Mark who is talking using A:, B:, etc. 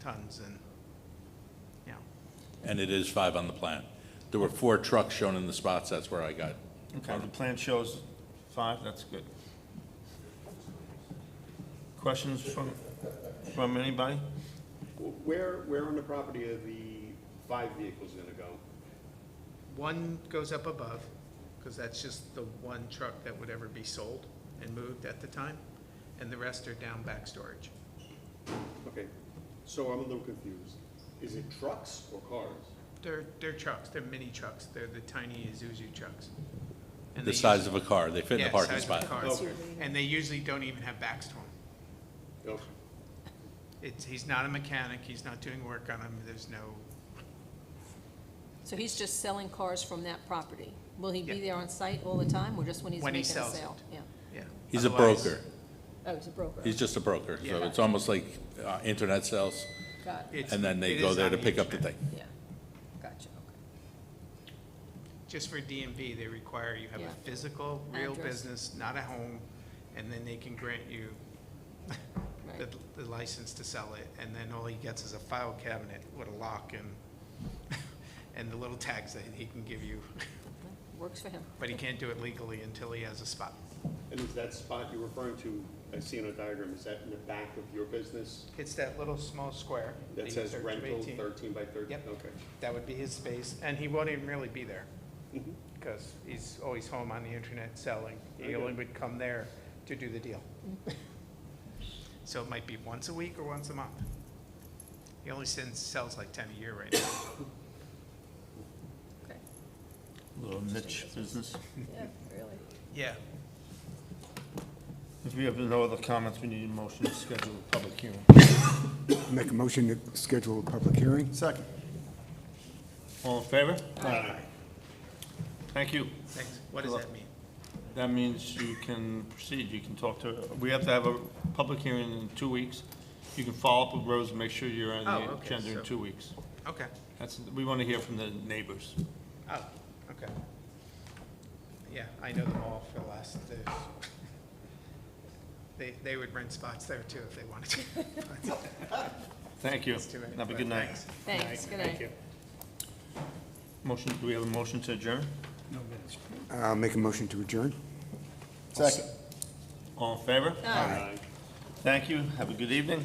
A: tons and, yeah,
B: And it is five on the plan. There were four trucks shown in the spots, that's where I got.
C: Okay, the plan shows five, that's good. Questions from, from anybody?
D: Where, where on the property are the five vehicles gonna go?
A: one goes up above, because that's just the one truck that would ever be sold and moved at the time, and the rest are down back storage.
D: Okay, so I'm a little confused. Is it trucks or cars?
A: They're, they're trucks, they're mini trucks, they're the tiny Isuzu trucks. And
B: The
A: they
B: size
A: usu-
B: of a car, they fit in
A: yeah,
B: the parking
A: size of a
B: spot.
A: car.
D: Okay.
A: And they usually don't even have backs to them.
D: Okay.
A: It's, he's not a mechanic, he's not doing work on them, there's no,
E: So he's just selling cars from that property? Will he be
A: Yeah.
E: there on site all the time, or just when he's
A: When he
E: making a sale?
A: sells it.
E: Yeah.
A: yeah.
B: He's a
A: Otherwise-
B: broker,
E: Oh, he's a broker.
B: he's just a broker, so
A: Yeah.
B: it's almost like uh, internet sales,
E: Got it,
A: It's-
B: and then they
A: it
B: go
A: is
B: there
A: on
B: to pick up the
A: internet.
B: thing.
E: yeah. Gotcha, okay.
A: Just for DMV, they require you have
E: Yeah.
A: a physical, real
E: Address.
A: business, not a home, and then they can grant you the,
E: Right.
A: the license to sell it, and then all he gets is a file cabinet with a lock and, and the little tags that he can give you,
E: Works for him.
A: but he can't do it legally until he has a spot.
D: And is that spot you're referring to, I see on a diagram, is that in the back of your business?
A: It's that little small square.
D: That
A: the
D: says
A: 13 by
D: rental
A: 18.
D: thirteen by thirteen?
A: Yep.
D: Okay.
A: That would be his space, and he won't even really be there,
C: Mm-hmm.
A: because he's always home on the internet selling. He
D: Okay.
A: only would come there to do the deal. So it might be once a week or once a month. He only sends, sells like ten a year right now.
E: Okay.
C: Little niche business.
E: Yeah, really.
A: Yeah,
C: If we have no other comments, we need a motion to schedule a public hearing.
F: Make a motion to schedule a public hearing?
C: Second. All in favor? Aye. Thank you.
A: thanks. What does that mean?
C: That means you can proceed, you can talk to, we have to have a public hearing in two weeks. You can follow up with Rose and make sure you're on
A: Oh,
C: the
A: okay,
C: agenda
A: so-
C: in two weeks.
A: Okay,
C: That's, we want to hear from the neighbors.
A: oh, okay. Yeah, I know them all for the last, there's- they, they would rent spots there too if they wanted to.
C: Thank you.
A: It's too many,
C: Have a
A: but
C: good night.
A: thanks.
E: Thanks, good night.
C: Motion, do we have a motion to adjourn?
F: I'll make a motion to adjourn?
C: All in favor? Aye. Thank you, have a good evening.